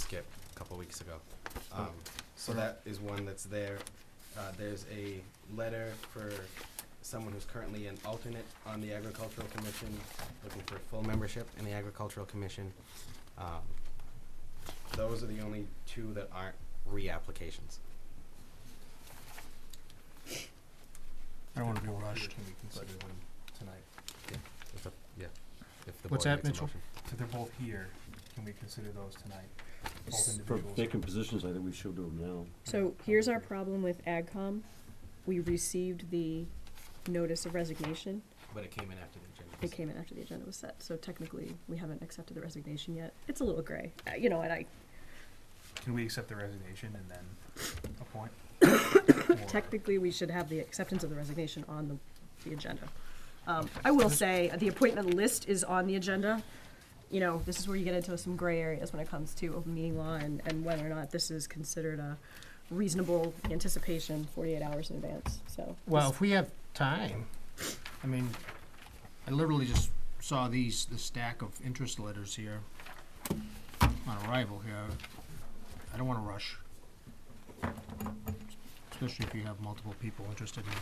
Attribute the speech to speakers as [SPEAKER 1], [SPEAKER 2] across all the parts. [SPEAKER 1] Skip a couple weeks ago.
[SPEAKER 2] Oh.
[SPEAKER 1] Um, so that is one that's there. Uh, there's a letter for someone who's currently an alternate on the Agricultural Commission, looking for full membership in the Agricultural Commission. Um, those are the only two that aren't reapplications.
[SPEAKER 2] I don't wanna be rushed.
[SPEAKER 3] Can we consider them tonight?
[SPEAKER 1] If the, yeah. If the
[SPEAKER 2] What's
[SPEAKER 1] board
[SPEAKER 2] that,
[SPEAKER 1] makes a
[SPEAKER 2] Mitchell?
[SPEAKER 1] motion.
[SPEAKER 3] So they're both here, can we consider those tonight? Both
[SPEAKER 4] For
[SPEAKER 3] individuals?
[SPEAKER 4] vacant positions, I think we should do them now.
[SPEAKER 5] So here's our problem with AgCom. We received the notice of resignation.
[SPEAKER 1] But it came in after the agenda.
[SPEAKER 5] It
[SPEAKER 1] was-
[SPEAKER 5] came in after the agenda was set, so technically, we haven't accepted the resignation yet. It's a little gray, uh, you know, and I,
[SPEAKER 3] Can we accept the resignation and then appoint? Or-
[SPEAKER 5] technically, we should have the acceptance of the resignation on the, the agenda. Um, I will say, uh, the appointment list is on the agenda. You know, this is where you get into some gray areas when it comes to open meeting law and, and whether or not this is considered a reasonable anticipation forty-eight hours in advance, so.
[SPEAKER 2] Well, if we have time, I mean, I literally just saw these, the stack of interest letters here on arrival here. I don't wanna rush. Especially if you have multiple people interested in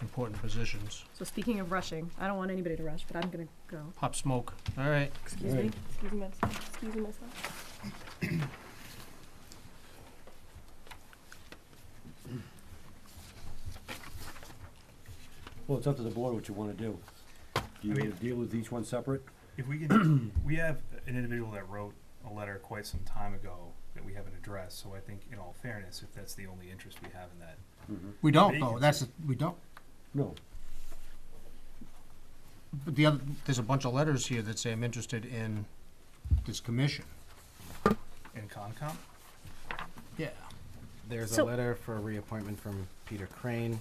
[SPEAKER 2] important positions.
[SPEAKER 5] So speaking of rushing, I don't want anybody to rush, but I'm gonna go.
[SPEAKER 2] Pop smoke, all right.
[SPEAKER 5] Excuse me, excuse me, excuse me myself.
[SPEAKER 4] Well, it's up to the board what you wanna do. Do you
[SPEAKER 3] I
[SPEAKER 4] wanna
[SPEAKER 3] mean-
[SPEAKER 4] deal with each one separate?
[SPEAKER 3] If we can, we have an individual that wrote a letter quite some time ago that we haven't addressed, so I think in all fairness, if that's the only interest we have in that.
[SPEAKER 2] We don't though, that's, the- we don't.
[SPEAKER 4] No,
[SPEAKER 2] But the other, there's a bunch of letters here that say I'm interested in this commission.
[SPEAKER 3] In Concom,
[SPEAKER 2] Yeah.
[SPEAKER 1] There's a
[SPEAKER 5] So-
[SPEAKER 1] letter for reappointment from Peter Crane,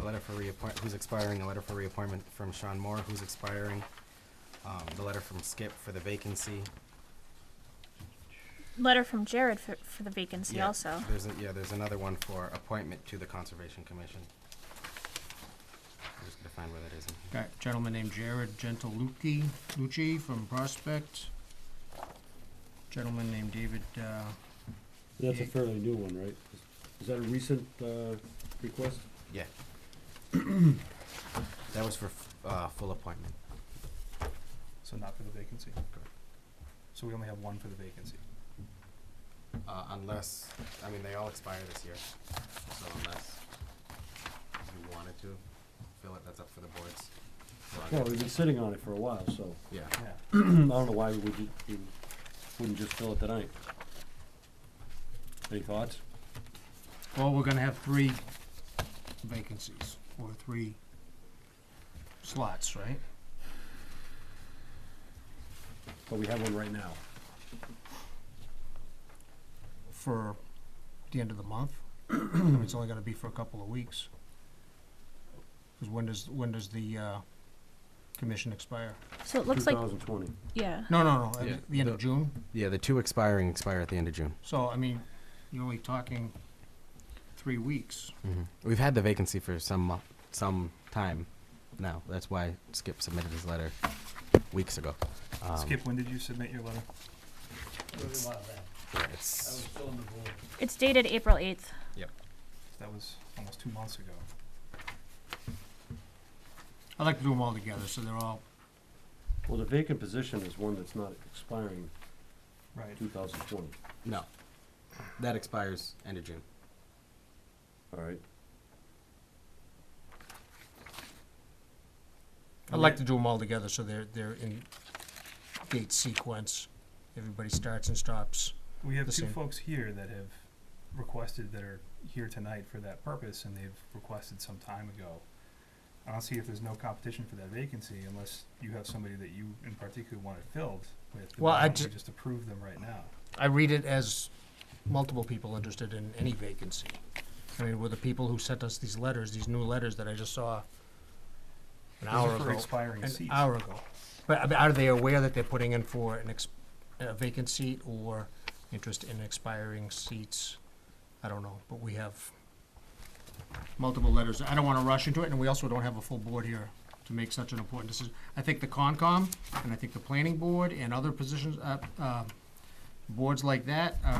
[SPEAKER 1] a letter for reappoint, who's expiring, a letter for reappointment from Sean Moore, who's expiring, um, the letter from Skip for the vacancy.
[SPEAKER 6] letter from Jared for, for the vacancy
[SPEAKER 1] Yeah,
[SPEAKER 6] also.
[SPEAKER 1] There's, a- yeah, there's another one for appointment to the Conservation Commission. I'm just gonna find where that is in here.
[SPEAKER 2] Got a gentleman named Jared Gentilucci, Lucci from Prospect. Gentleman named David, uh,
[SPEAKER 4] that's a
[SPEAKER 2] Yeah.
[SPEAKER 4] fairly new one, right? Is- Is that a recent, uh, request?
[SPEAKER 1] Yeah. That was for, f- uh, full appointment.
[SPEAKER 3] so not for the vacancy. So we only have one for the vacancy.
[SPEAKER 1] Uh, unless, I mean, they all expire this year, so unless you wanted to fill it, that's up for the boards.
[SPEAKER 4] Well, we've been sitting on it for a while, so
[SPEAKER 1] Yeah,
[SPEAKER 3] Yeah.
[SPEAKER 4] I don't know why we wouldn't, we wouldn't just fill it tonight. Any thoughts?
[SPEAKER 2] well, we're gonna have three vacancies, or three slots, right?
[SPEAKER 4] But we have one right now.
[SPEAKER 2] For the end of the month. It's only gonna be for a couple of weeks. Cause when does, when does the, uh, commission expire?
[SPEAKER 6] So it looks like,
[SPEAKER 4] Two thousand twenty.
[SPEAKER 6] yeah.
[SPEAKER 2] No, no, no,
[SPEAKER 1] Yeah,
[SPEAKER 2] at the end of
[SPEAKER 1] the-
[SPEAKER 2] June.
[SPEAKER 1] yeah, the two expiring expire at the end of June.
[SPEAKER 2] So, I mean, you're only talking three weeks.
[SPEAKER 1] We've had the vacancy for some mo- some time now. That's why Skip submitted his letter weeks ago. Um,
[SPEAKER 3] Skip, when did you submit your letter?
[SPEAKER 1] yeah, it's-
[SPEAKER 6] It's dated April 8th.
[SPEAKER 3] That was almost two months ago.
[SPEAKER 2] I like to do them all together, so they're all
[SPEAKER 4] Well, the vacant position is one that's not expiring
[SPEAKER 3] Right.
[SPEAKER 4] two thousand twenty,
[SPEAKER 1] no, that expires end of June.
[SPEAKER 4] all right?
[SPEAKER 2] I like to do them all together, so they're, they're in date sequence. Everybody starts and stops.
[SPEAKER 3] We have
[SPEAKER 2] The
[SPEAKER 3] two
[SPEAKER 2] same.
[SPEAKER 3] folks here that have requested, that are here tonight for that purpose, and they've requested some time ago. I don't see if there's no competition for that vacancy unless you have somebody that you in particular want it filled with. then
[SPEAKER 2] Well,
[SPEAKER 3] why
[SPEAKER 2] I
[SPEAKER 3] don't we
[SPEAKER 2] ju-
[SPEAKER 3] Just approve them right now.
[SPEAKER 2] I read it as multiple people interested in any vacancy. I mean, were the people who sent us these letters, these new letters that I just saw an
[SPEAKER 3] Those
[SPEAKER 2] hour
[SPEAKER 3] are for
[SPEAKER 2] ago?
[SPEAKER 3] expiring
[SPEAKER 2] An
[SPEAKER 3] seats.
[SPEAKER 2] hour ago. But I mean, are they aware that they're putting in for an ex, a vacant seat or interest in expiring seats? I don't know, but we have multiple letters. I don't wanna rush into it, and we also don't have a full board here to make such an important decision. I think the Concom, and I think the Planning Board and other positions, uh, uh, boards like that are